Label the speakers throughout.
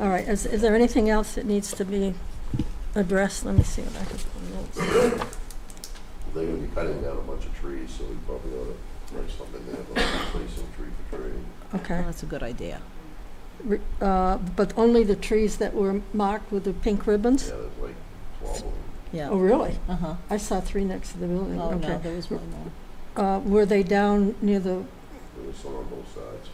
Speaker 1: All right, is, is there anything else that needs to be addressed? Let me see what I can pull notes.
Speaker 2: They're gonna be cutting down a bunch of trees, so we probably ought to write something there, but replace some tree for tree.
Speaker 1: Okay,
Speaker 3: Oh, That's a good idea.
Speaker 1: Re- uh, but only the trees that were marked with the pink ribbons?
Speaker 2: Yeah, there's like twelve of them.
Speaker 1: Oh,
Speaker 3: Yeah.
Speaker 1: really?
Speaker 3: Uh-huh.
Speaker 1: I saw three next to the building,
Speaker 3: Oh, no,
Speaker 1: okay.
Speaker 3: there was one more.
Speaker 1: Uh, were they down near the,
Speaker 2: There was some on both sides.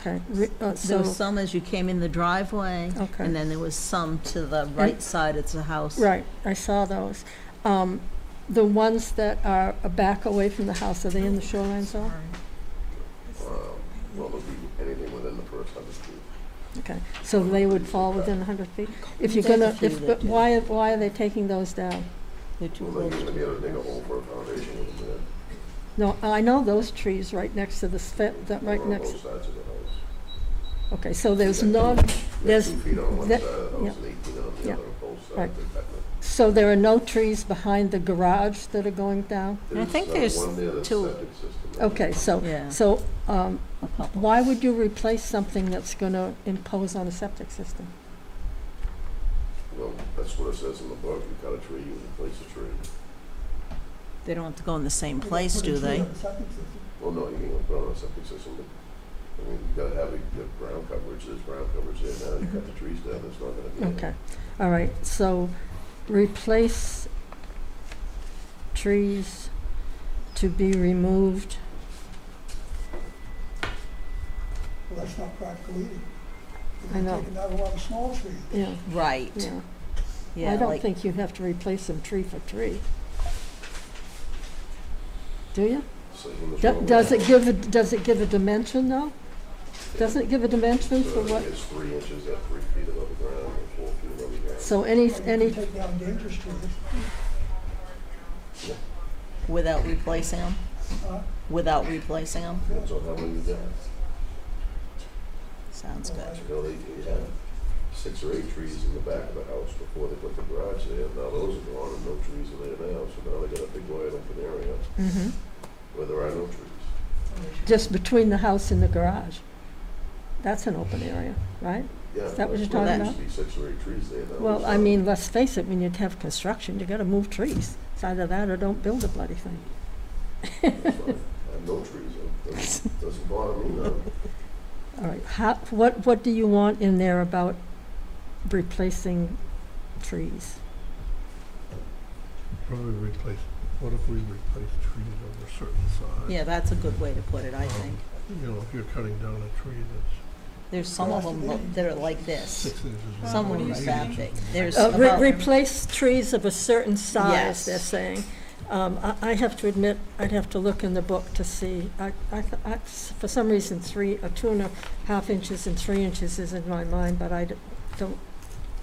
Speaker 1: okay, re- uh,
Speaker 3: There
Speaker 1: so,
Speaker 3: was some as you came in the driveway, and
Speaker 1: okay,
Speaker 3: then there was some to the right side, it's a house.
Speaker 1: right, I saw those. Um, the ones that are back away from the house, are they in the shoreline zone?
Speaker 2: Um, Well, there'll be anything within the first hundred feet.
Speaker 1: Okay, so they would fall within hundred feet? If you're
Speaker 3: There's a
Speaker 1: gonna,
Speaker 3: few
Speaker 1: if,
Speaker 3: that
Speaker 1: but
Speaker 3: do.
Speaker 1: why, why are they taking those down?
Speaker 3: They're too
Speaker 2: Well, they're
Speaker 3: low.
Speaker 2: gonna be able to dig a hole for a foundation with them
Speaker 1: No, I know those trees right next to the, fe- that
Speaker 2: there.
Speaker 1: right
Speaker 2: One
Speaker 1: next,
Speaker 2: On both sides of the house.
Speaker 1: okay, so there's no,
Speaker 2: Yeah,
Speaker 1: There's-
Speaker 2: Two feet on one
Speaker 1: that-
Speaker 2: side of the house
Speaker 1: yeah.
Speaker 2: and eighteen on the
Speaker 1: Yeah.
Speaker 2: other, on both sides. uh,
Speaker 1: Right.
Speaker 2: They're cutting it.
Speaker 1: so there are no trees behind the garage that are going down?
Speaker 3: I think
Speaker 2: uh,
Speaker 3: there's
Speaker 2: one there that's
Speaker 3: two-
Speaker 2: septic system.
Speaker 1: Okay, so,
Speaker 3: Yeah.
Speaker 1: so, um,
Speaker 3: a couple.
Speaker 1: why would you replace something that's gonna impose on a septic system?
Speaker 2: Well, that's what it says in the book, you cut a tree, you replace a tree.
Speaker 3: They don't have to go in the same place, do they?
Speaker 2: Well, no, you can put on a septic system, but, I mean, you gotta have a good ground coverage, there's ground coverage there now, you cut the trees down, there's not gonna be. any.
Speaker 1: Okay, all right, so replace trees to be removed,
Speaker 4: Well, that's not practical either.
Speaker 1: I know.
Speaker 4: You're taking out a lot of small trees.
Speaker 1: yeah,
Speaker 3: Right.
Speaker 1: yeah.
Speaker 3: Yeah.
Speaker 1: I don't
Speaker 3: like-
Speaker 1: think you have to replace them tree for tree. Do you?
Speaker 2: So in the
Speaker 1: Do-
Speaker 2: shoreline-
Speaker 1: Does it give, a does it give a dimension though? Doesn't it give a dimension
Speaker 2: So
Speaker 1: for
Speaker 2: it
Speaker 1: what?
Speaker 2: is three inches at three feet above the ground, and four feet above the ground.
Speaker 1: So any,
Speaker 4: You can
Speaker 1: any,
Speaker 4: Take down dangerous trees.
Speaker 3: Without replacing them?
Speaker 4: Huh?
Speaker 3: Without replacing them?
Speaker 2: Depends on how many you got.
Speaker 3: Sounds good.
Speaker 2: You know, they, they had six or eight trees in the back of the house before they put the garage there, now those are gone, and no trees are there now, so now they got a big wide open area
Speaker 1: Mhm.
Speaker 2: where there are no trees.
Speaker 1: just between the house and the garage? That's an open area, right?
Speaker 2: Yeah.
Speaker 1: Is that what you're
Speaker 2: that's where
Speaker 3: talking
Speaker 2: There used to be six or eight trees there. now
Speaker 1: Well,
Speaker 2: it's
Speaker 1: I
Speaker 2: not.
Speaker 1: mean, let's face it, when you have construction, you gotta move trees. It's either that or don't build a bloody thing.
Speaker 2: It's fine. I have no trees, it doesn't, doesn't bother me, no.
Speaker 1: All right, how, what, what do you want in there about replacing trees?
Speaker 5: Probably replace, what if we replace trees over a certain size?
Speaker 3: Yeah, that's a good way to put it, I think.
Speaker 5: You know, if you're cutting down a tree that's
Speaker 3: There's some of them that are like this.
Speaker 5: six inches long.
Speaker 3: Some
Speaker 5: or
Speaker 3: were
Speaker 5: eight
Speaker 3: that
Speaker 5: inches
Speaker 3: big.
Speaker 5: long.
Speaker 3: There's
Speaker 1: Uh, re-
Speaker 3: about,
Speaker 1: Replace trees of a certain size,
Speaker 3: Yes.
Speaker 1: they're saying. Um, I, I have to admit, I'd have to look in the book to see. I, I, th- I- for some reason, three, a two and a half inches and three inches is in my mind, but I d- don't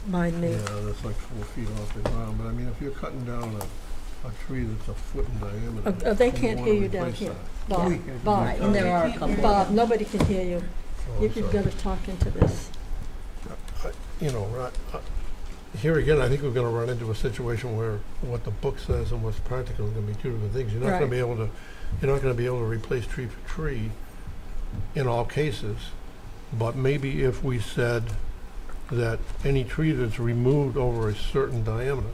Speaker 1: mind me.
Speaker 5: Yeah, that's like four feet off the ground, but I mean, if you're cutting down a, a tree that's a foot in diameter.
Speaker 1: Uh, uh, they
Speaker 5: you
Speaker 1: can't
Speaker 5: wanna
Speaker 1: hear you down
Speaker 5: replace
Speaker 1: here.
Speaker 5: that.
Speaker 1: Bob,
Speaker 5: We can't do
Speaker 1: Bob,
Speaker 5: that.
Speaker 3: and there are a couple.
Speaker 1: Bob, nobody can hear you.
Speaker 5: Oh, I'm
Speaker 1: You- You've
Speaker 5: sorry.
Speaker 1: got to talk into this.
Speaker 5: You know, right, uh, here again, I think we're gonna run into a situation where what the book says and what's practical are gonna be two different things. You're not gonna
Speaker 1: Right.
Speaker 5: be able to, you're not gonna be able to replace tree for tree in all cases. But maybe if we said that any tree that's removed over a certain diameter,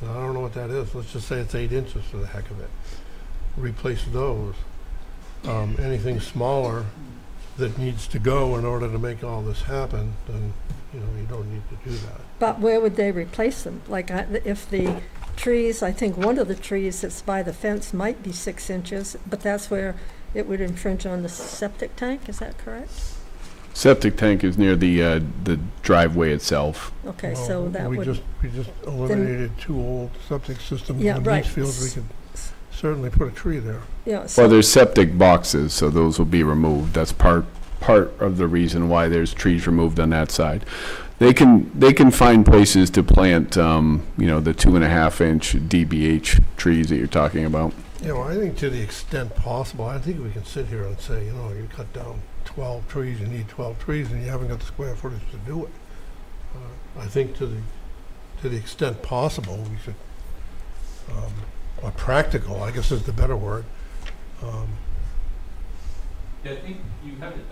Speaker 5: and I don't know what that is, let's just say it's eight inches for the heck of it, replace those. Um, anything smaller that needs to go in order to make all this happen, then, you know, you don't need to do that.
Speaker 1: But where would they replace them? Like, I- if the trees, I think one of the trees that's by the fence might be six inches, but that's where it would infringe on the septic tank, is that correct?
Speaker 6: Septic tank is near the, uh, the driveway itself.
Speaker 1: Okay,
Speaker 5: Well,
Speaker 1: so that
Speaker 5: We
Speaker 1: would,
Speaker 5: just, we just eliminated two old septic systems
Speaker 1: Yeah,
Speaker 5: in
Speaker 1: right.
Speaker 5: Mansfield. We could certainly put a tree there.
Speaker 1: yeah,
Speaker 6: Well,
Speaker 1: so,
Speaker 6: there's septic boxes, so those will be removed. That's part, part of the reason why there's trees removed on that side. They can, they can find places to plant, um, you know, the two and a half inch DBH trees that you're talking about.
Speaker 5: You know, I think to the extent possible, I think we can sit here and say, you know, you cut down twelve trees, you need twelve trees, and you haven't got the square footage to do it. Uh, I think to the, to the extent possible, we should, um, or practical, I guess is the better word, um,
Speaker 7: Yeah, I think you have it